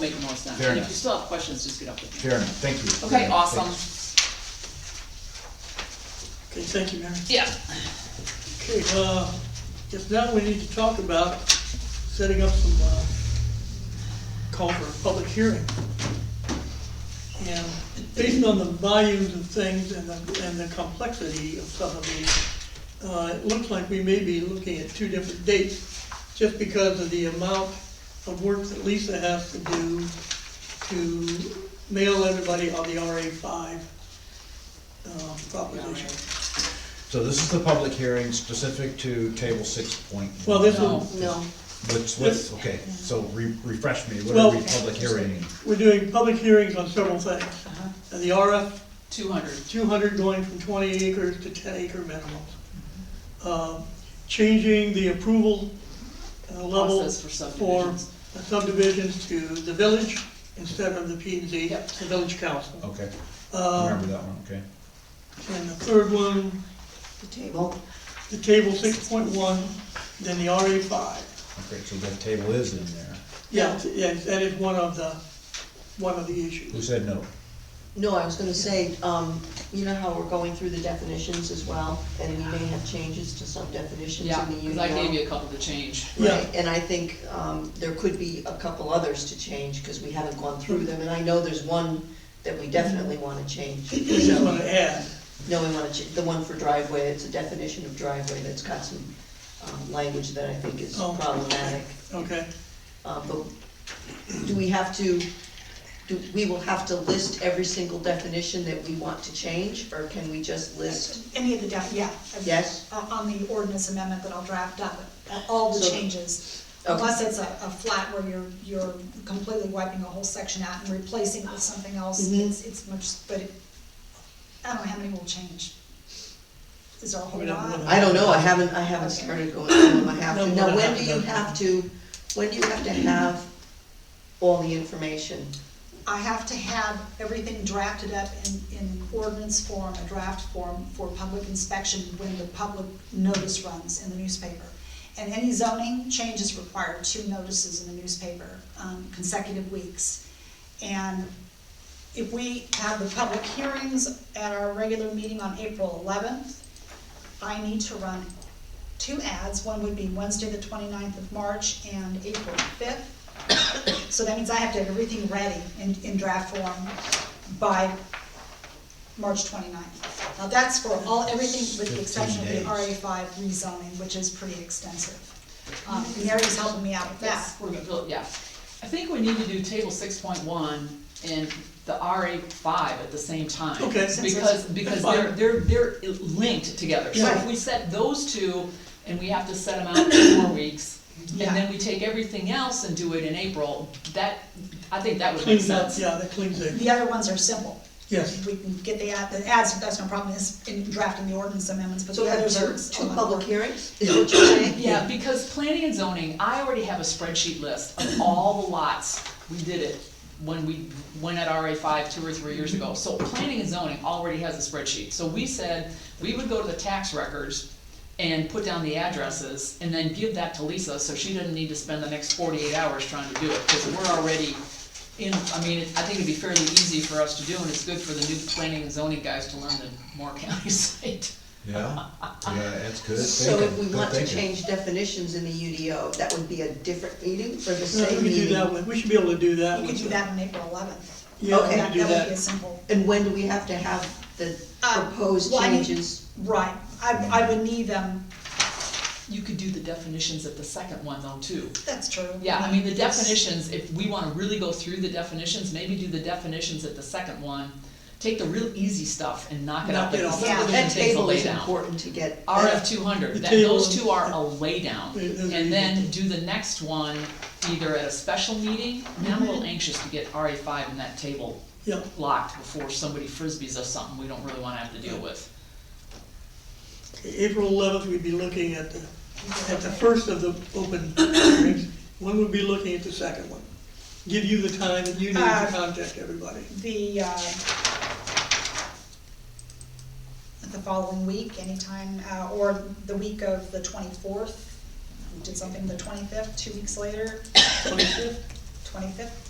make more sense. Fair And if enough. you still have questions, just get up with me. Fair enough, thank you. Okay, Thank- awesome. Okay, thank you, Mary. Yeah. Okay, uh, just now we need to talk about setting up some, uh, call for a public hearing. And based on the volumes of things and the, and the complexity of some of these, uh, it looks like we may be looking at two different dates just because of the amount of work that Lisa has to do to mail everybody on the RA five, um, proposition. So this is the public hearing specific to table six point Well, this No. will, No, What's, what's, okay, so re- refresh me, what Well- are we public hearing? We're doing public hearings on several things, Uh-huh. and the RF Two hundred. two hundred going from twenty acres to ten acre minimums. Mm-hmm. Um, Changing the approval uh, level Process for for subdivisions. subdivisions to the village instead of the P and Z, Yep. the village council. Okay, Um, uh, remember that one, okay. And the third one, the table, the table six point one, then the RA five. Okay, so that table is in there. Yeah, it's- yeah, that is one of the, one of the issues. Who said no? no, I was gonna say, um, you know how we're going through the definitions as well, and we may have changes to some definitions Yeah, in the U because I gave you a couple to change. Yeah. Right, and I think, um, there could be a couple others to change, cause we haven't gone through them, and I know there's one that we definitely wanna change. We just So- wanna add. No, we wanna change, the one for driveway, it's a definition of driveway that's got some, um, language that I think is Oh. problematic. Okay, Uh, but do we have to, do, we will have to list every single definition that we want to change, or can we just list? Any of the, def- yeah. Yes. Uh, On the ordinance amendment that I'll draft up, uh, all the So- changes. Okay. Unless it's a, a flat where you're, you're completely wiping a whole section out and replacing it with something else, Mhm. it's, it's much, but it, I don't know how many will change. Is there a whole We don't lot? know. I don't know, I haven't, I haven't started going through them, I have No, Mm-hmm. we're to, now, gonna when have do to you go. have to, when do you have to have all the information? I have to have everything drafted up in, in ordinance form, a draft form for public inspection when the public notice runs in the newspaper. And any zoning changes require two notices in the newspaper, um, consecutive weeks. And if we have the public hearings at our regular meeting on April eleventh, I need to run two ads. One would be Wednesday, the 29th of March and April fifth. So that means I have to have everything ready in, in draft form by March 29th. Now, that's for all, everything with the exception of the 15 RA days. five rezoning, which is pretty extensive. Um, Mary's helping me out with that. We're gonna build, yeah. I think we need to do table six point one and the RA five at the same time. Okay. Because, because they're, Fine. they're, they're linked together. So if Yeah. we set those two, and we have to set them out in four weeks, and then Yeah. we take everything else and do it in April, that, I think that would make cleans up, sense. yeah, that cleans it, The other ones are simple. yes. We can get the ad, the ads, that's no problem, is in drafting the ordinance amendments, but So the we have others two, are. two public hearings, is what you're saying? Yeah, because planning and zoning, I already have a spreadsheet list of all the lots, we did it when we went at RA five two or three years ago. So planning and zoning already has a spreadsheet, so we said, we would go to the tax records and put down the addresses, and then give that to Lisa, so she doesn't need to spend the next forty-eight hours trying to do it, because we're already in, I mean, it- I think it'd be fairly easy for us to do, and it's good for the new planning and zoning guys to learn the Moore County site. Yeah, yeah, that's good So if we thinking, good want to thinking. change definitions in the UDO, that would be a different meeting or the Yeah, same We could do meeting? that, with- we should be able to do that. You could with do the- that on April eleventh. Yeah, we Okay. could do That would be a that. simple. And when do we have to have the Uh, proposed well, I need- changes? Right, I, I would need them, You could do the definitions at the second one though, too. that's true. Yeah, I mean, the definitions, if we wanna really go through the definitions, maybe do the definitions at the second one, take the real easy stuff and knock it out, Knock it like off. subdivision That things will table lay is down. important to get. RF two hundred, The that, table- those two are a lay down, Yeah, those are and then do easy. the next one either at a special meeting, now I'm a Mm-hmm. little anxious to get RA five in that table Yeah, locked before somebody frisbees us something we don't really wanna have to deal with. April eleventh, we'd be looking at the, at the first of the open hearings, one would be looking at the second one. Give you the time that you need to Uh, contact everybody. The, uh, the following week, anytime, uh, or the week of the twenty-fourth, we did something the twenty-fifth, two weeks later, Twenty-fifth, twenty-fifth.